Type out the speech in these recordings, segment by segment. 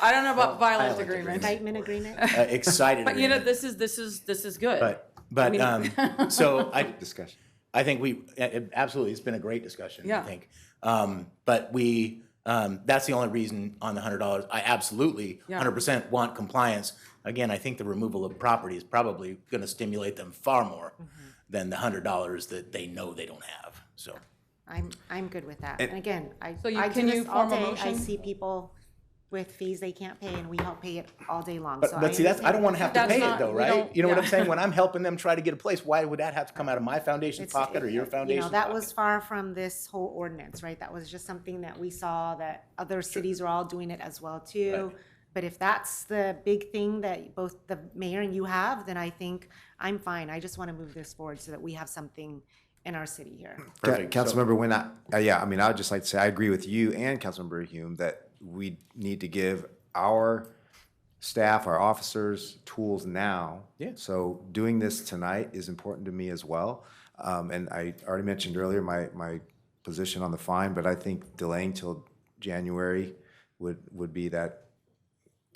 I don't know about I violent like agreement. agreement. Statement agreement? uh, excited. But you know, agreement. this is, this is, this is good. But, but, I um, mean- so I, Discussion. I think we, a- a- absolutely, it's been a great discussion, I Yeah. think. Um, but we, um, that's the only reason on the hundred dollars. I absolutely, Yeah. hundred percent want compliance. Again, I think the removal of property is probably gonna stimulate them far more Mm-hmm. than the hundred dollars that they know they don't have, so. I'm, I'm good with that. And again, I, So you- I do can you this all form a day. I motion? see people with fees they can't pay and we help pay it all day long, so But, I but see, that's, I don't wanna have to That's pay it not- though, we right? don't- You know what I'm yeah. saying? When I'm helping them try to get a place, why would that have to come out of my foundation's It's- pocket or your You foundation's know, pocket? that was far from this whole ordinance, right? That was just something that we saw that other cities are all doing it as well too. But if that's the big thing that both the mayor and you have, then I think I'm fine. I just want to move this forward so that we have something in our city here. Ca- Perfect. So- Councilmember Nguyen, I- uh, yeah, I mean, I would just like to say, I agree with you and Councilmember Hume that we need to give our staff, our officers, tools now. Yeah. So doing this tonight is important to me as well. Um, And I already mentioned earlier my, my position on the fine, but I think delaying till January would, would be that,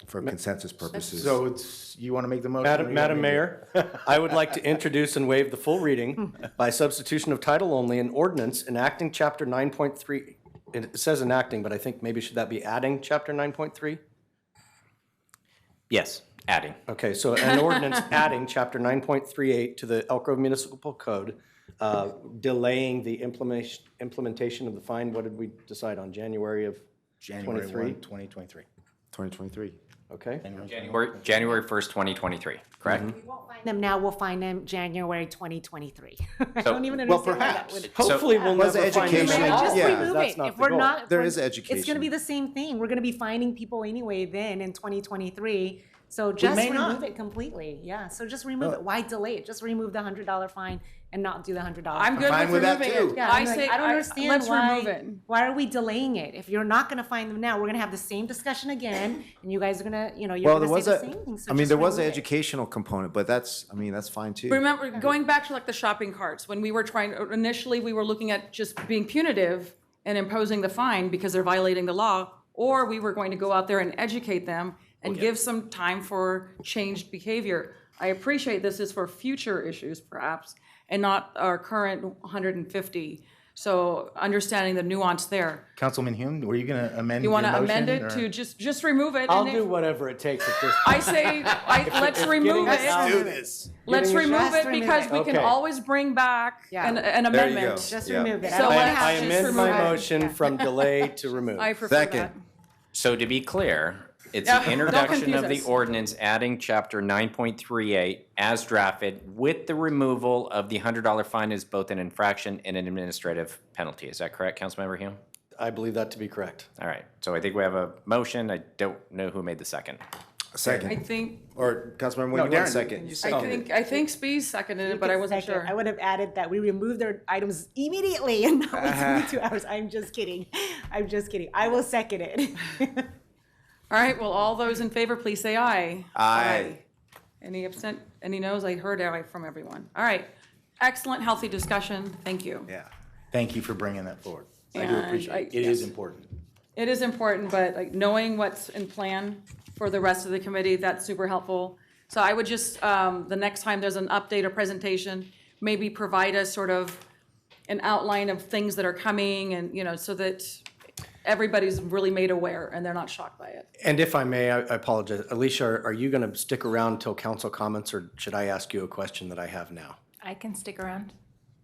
for consensus purposes. So it's, you wanna make the motion? Madam, Madam Mayor, I would like to introduce and waive the full reading by substitution of title only an ordinance enacting chapter nine point three. It says enacting, but I think maybe should that be adding chapter nine point three? Yes, adding. Okay, so an ordinance adding chapter nine point three eight to the Elk Grove Municipal Code, uh, delaying the implementation, implementation of the fine. What did we decide on January of? January 23? one, twenty twenty-three. 2023. Okay, January, January 1st, 2023, correct? Find Them now, we'll find them January 2023. I So- don't even Well, understand why that perhaps. would. hopefully we'll Was never find them education- at all. Just Yeah, remove that's it. not If the we're goal. not. if There we're- is It's gonna education. be the same thing. We're gonna be finding people anyway then in twenty twenty-three. So just may remove not. it completely. Yeah, so just Uh. remove it. Why delay it? Just remove the hundred dollar fine and not do the hundred dollar. I'm good fine with with that removing too. it. Yeah, I I'm like, say, I don't I- understand let's remove why, it. why are we delaying it? If you're not gonna find them now, we're gonna have the same discussion again and you guys are gonna, you know, you're Well, there gonna was say the a, same thing. So I mean, just there was an remove it. educational component, but that's, I mean, that's fine too. Remember, going back to like the shopping carts, when we were trying, initially, we were looking at just being punitive and imposing the fine because they're violating the law, or we were going to go out there and educate them and give some time for changed behavior. I appreciate this is for future issues perhaps, and not our current 150. So understanding the nuance there. Councilman Hume, were you gonna amend You your want motion? to amend it or- to just, just remove it? I'll and do if- whatever it takes at this I point. say, I, let's if remove getting it it. out- Do this. Let's Getting it- remove Just it remove because it. we can Okay. always bring back Yeah. an, an There you amendment. go. Just Yeah. remove it. So don't I- have I to amend just my remove it. motion from delay to remove. Oh, I prefer Second. that. So to be clear, it's Yeah, an don't introduction confuse of the us. ordinance adding chapter 9.38 as drafted with the removal of the $100 fine as both an infraction and an administrative penalty. Is that correct, Councilmember Hume? I believe that to be correct. All right, so I think we have a motion. I don't know who made the second. I Second, think, or Councilmember No, Nguyen, you want Darren, a second? you I seconded it. think, I think Spees seconded it, but I wasn't Second, sure. I would have added that we remove their items immediately and not wait till two hours. I'm just kidding. I'm just kidding. I will second it. All right, well, all those in favor, please say aye. Aye. Any absent, any noes? I heard aye from everyone. All right. Excellent, healthy discussion. Thank you. Yeah. Thank you for bringing that forward. I do And I- appreciate it. It is important. It is important, but like knowing what's in plan for the rest of the committee, that's super helpful. So I would just, um, the next time there's an update or presentation, maybe provide us sort of an outline of things that are coming and, you know, so that everybody's really made aware and they're not shocked by it. And if I may, I I apologize. Alicia, are- are you going to stick around till council comments, or should I ask you a question that I have now? I can stick around.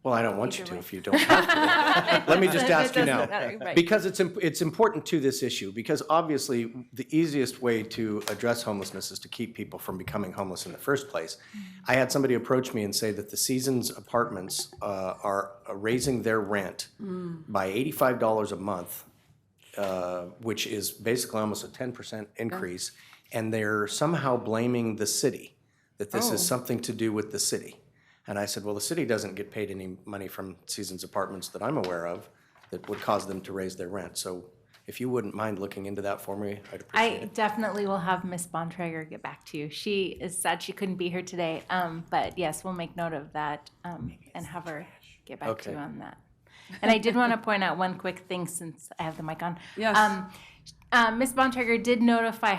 Well, I don't want you Either to way. if you don't have to. Let me just It ask you doesn't now. matter, right. Because it's, imp- it's important to this issue, because obviously, the easiest way to address homelessness is to keep people from becoming homeless in the first place. I had somebody approach me and say that the Seasons Apartments uh, are raising their rent by eighty-five dollars a month which is basically almost a ten percent increase, and they're somehow blaming the city, that this is something to do with the city. And I said, well, the city doesn't get paid any money from Seasons Apartments that I'm aware of that would cause them to raise their rent, so if you wouldn't mind looking into that for me, I'd appreciate it. I definitely will have Miss Bontrager get back to you. She is sad she couldn't be here today, um, but yes, we'll make note of that um, and have her get back to you Okay. on that. And I did want to point out one quick thing since I have the mic on. Yes. Um, uh, Miss Bontrager did notify